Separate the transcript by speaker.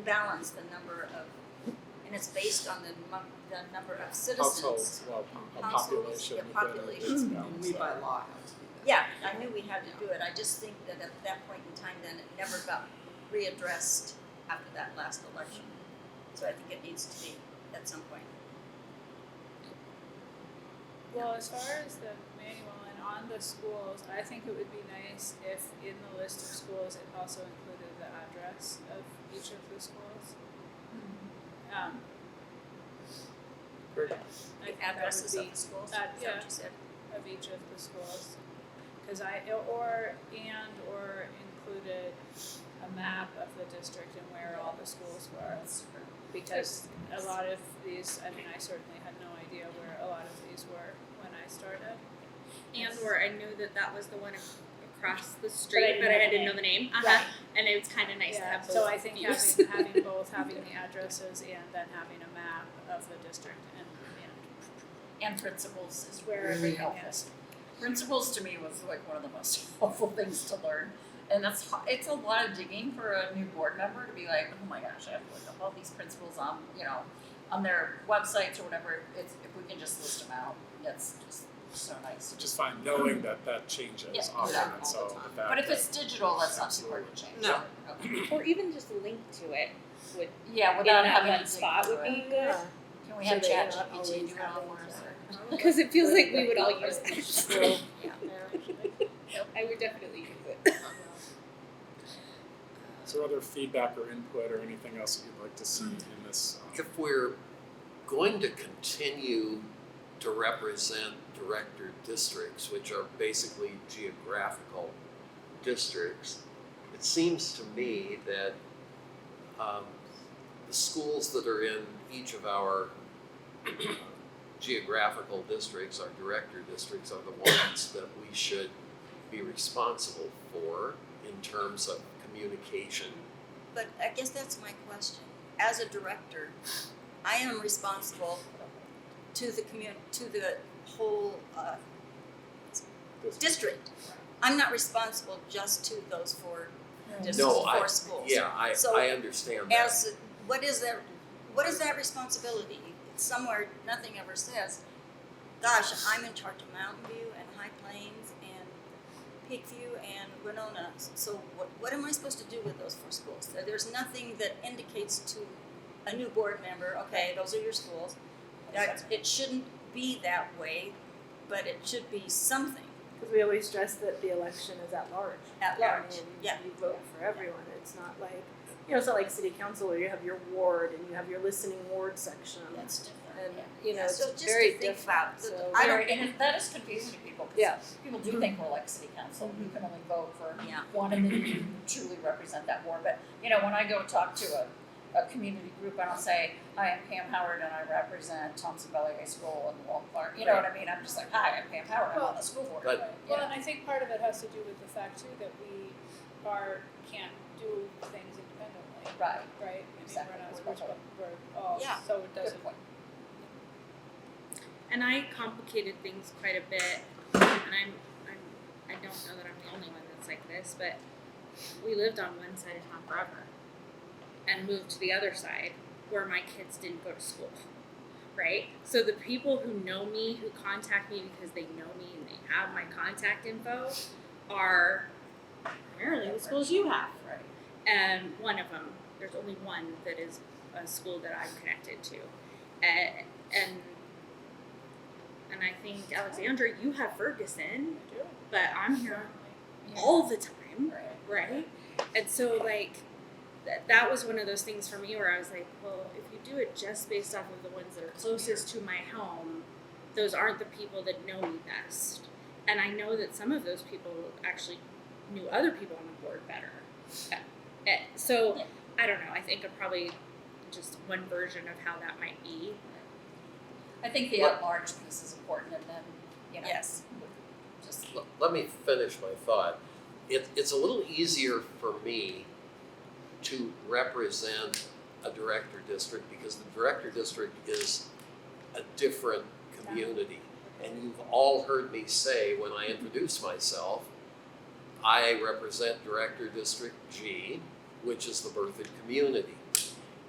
Speaker 1: balance the number of, and it's based on the mu- the number of citizens.
Speaker 2: households, well, a
Speaker 1: Households,
Speaker 2: population.
Speaker 1: yeah,
Speaker 2: within a
Speaker 1: population.
Speaker 2: business
Speaker 3: And we
Speaker 2: bound,
Speaker 3: by
Speaker 2: so.
Speaker 3: law have to do that.
Speaker 1: Yeah, I knew we had to do it, I just think that at that point in time, then it never got readdressed after that last election. So I think it needs to be at some point.
Speaker 4: Well, as far as the manual and on the schools, I think it would be nice if in the list of schools it also included the address of each of the schools. Um,
Speaker 2: Great.
Speaker 4: like
Speaker 1: The addresses
Speaker 4: that
Speaker 1: of
Speaker 4: would
Speaker 1: the schools, is
Speaker 4: that-
Speaker 1: that what you said?
Speaker 4: be of each of the schools. Cause I, or, and or included a map of the district and where all the schools were. Because a lot of these, I mean, I certainly had no idea where a lot of these were when I started.
Speaker 5: and or I knew that that was the one ac- across the street, but
Speaker 4: didn't know
Speaker 5: I
Speaker 4: the
Speaker 5: didn't know the name. Uh-huh. And it was kind of nice to
Speaker 4: Yeah,
Speaker 5: have both
Speaker 4: so I think
Speaker 5: views.
Speaker 4: having, having both, having the addresses and then having a map of the district and, and
Speaker 6: and principles is
Speaker 4: Where
Speaker 6: really
Speaker 4: everything
Speaker 6: helpful. Principles to me was like one of the most helpful things to learn, and that's ho- it's a lot of digging for a new board member to be like, oh my gosh, I have to look up all these principles on you know on their websites or whatever. It's if we can just list them out, that's just so nice.
Speaker 2: Just fine, knowing that that changes
Speaker 6: Yeah,
Speaker 2: often,
Speaker 6: exactly.
Speaker 2: and so.
Speaker 1: All the time.
Speaker 2: that-
Speaker 6: But if it's digital, that's not too hard to change.
Speaker 3: No.
Speaker 6: Okay.
Speaker 7: Or even just link to it would
Speaker 6: Yeah,
Speaker 7: in
Speaker 6: without
Speaker 7: that
Speaker 6: having to
Speaker 7: one
Speaker 6: dig
Speaker 7: spot would
Speaker 6: through it.
Speaker 7: be good.
Speaker 6: Can we
Speaker 7: so
Speaker 6: have
Speaker 7: that you're not
Speaker 6: ChatGPT do
Speaker 7: always
Speaker 6: it
Speaker 7: having
Speaker 6: all for
Speaker 7: to-
Speaker 6: us?
Speaker 7: Because it feels like we would all use that.
Speaker 6: True.
Speaker 7: I would definitely use it.
Speaker 2: Is there other feedback or input or anything else that you'd like to see in this? um,
Speaker 8: if we're going to continue to represent director districts, which are basically geographical districts, it seems to me that um, the schools that are in each of our uh, geographical districts, our director districts, are the ones that we should be responsible for in terms of communication.
Speaker 1: But I guess that's my question. As a director, I am responsible to the commun, to the whole uh, district. I'm not responsible just to those four districts,
Speaker 8: No, I-
Speaker 1: four schools.
Speaker 8: Yeah, I,
Speaker 1: So,
Speaker 8: I understand that.
Speaker 1: As, what is that, what is that responsibility? It's somewhere, nothing ever says, gosh, I'm in charge of Mountain View and High Plains and Peakview and Winona. So what, what am I supposed to do with those four schools? There- There's nothing that indicates to a new board member, okay, those are your schools. That, it shouldn't be that way, but it should be something
Speaker 9: Because we always stress that the election is at large.
Speaker 1: at large,
Speaker 9: I mean,
Speaker 1: yeah.
Speaker 9: you vote for everyone. It's not like, you know, it's not like city council where you have your ward and you have your listening ward section.
Speaker 6: That's different.
Speaker 9: And,
Speaker 6: yeah.
Speaker 9: you know, it's
Speaker 1: So just
Speaker 9: very
Speaker 1: to think
Speaker 9: different.
Speaker 1: about, the-
Speaker 9: So-
Speaker 1: I don't,
Speaker 6: Very- and it- that is confusing to people,
Speaker 9: Yeah.
Speaker 6: because people do think we're like city council, you can only vote for
Speaker 1: Yeah.
Speaker 6: one and then you truly represent that ward, but, you know, when I go talk to a, a community group, I don't say, I am Pam Howard and I represent Thompson Valley High School and Walt Clark, you know what I mean, I'm just like, hi, I'm Pam Howard, I'm on the school board.
Speaker 8: But-
Speaker 4: Well, and I think part of it has to do with the fact too that we are, can't do things independently,
Speaker 6: Right,
Speaker 4: right? I
Speaker 6: Exactly.
Speaker 4: mean,
Speaker 6: That's
Speaker 4: we're
Speaker 6: my
Speaker 4: not,
Speaker 6: point.
Speaker 4: we're, we're all,
Speaker 1: Yeah.
Speaker 4: so it doesn't
Speaker 6: good point.
Speaker 5: and I complicated things quite a bit. And I'm, I'm I don't know that I'm the only one that's like this, but we lived on one side of town forever, and moved to the other side where my kids didn't go to school. Right? So the people who know me, who contact me because they know me and they have my contact info, are primarily the schools you have.
Speaker 6: Right.
Speaker 5: um, one of them. There's only one that is a school that I'm connected to, uh, and and I think Alexandra, you have Ferguson,
Speaker 4: do.
Speaker 5: but I'm here all the time,
Speaker 6: Right.
Speaker 5: right? And so like th- that was one of those things for me where I was like, well, if you do it just based off of the ones that are closest to my home, those aren't the people that know me best. And I know that some of those people actually knew other people on the board better. Uh, eh, So
Speaker 6: Yeah.
Speaker 5: I don't know. I think of probably just one version of how that might be.
Speaker 6: I think the at-large piece is important, and then, you know,
Speaker 1: yes.
Speaker 6: just,
Speaker 8: L- let me finish my thought. It, it's a little easier for me to represent a director district because the director district is a different community. And you've all heard me say when I introduce myself, I represent Director District G, which is the Berthoud community.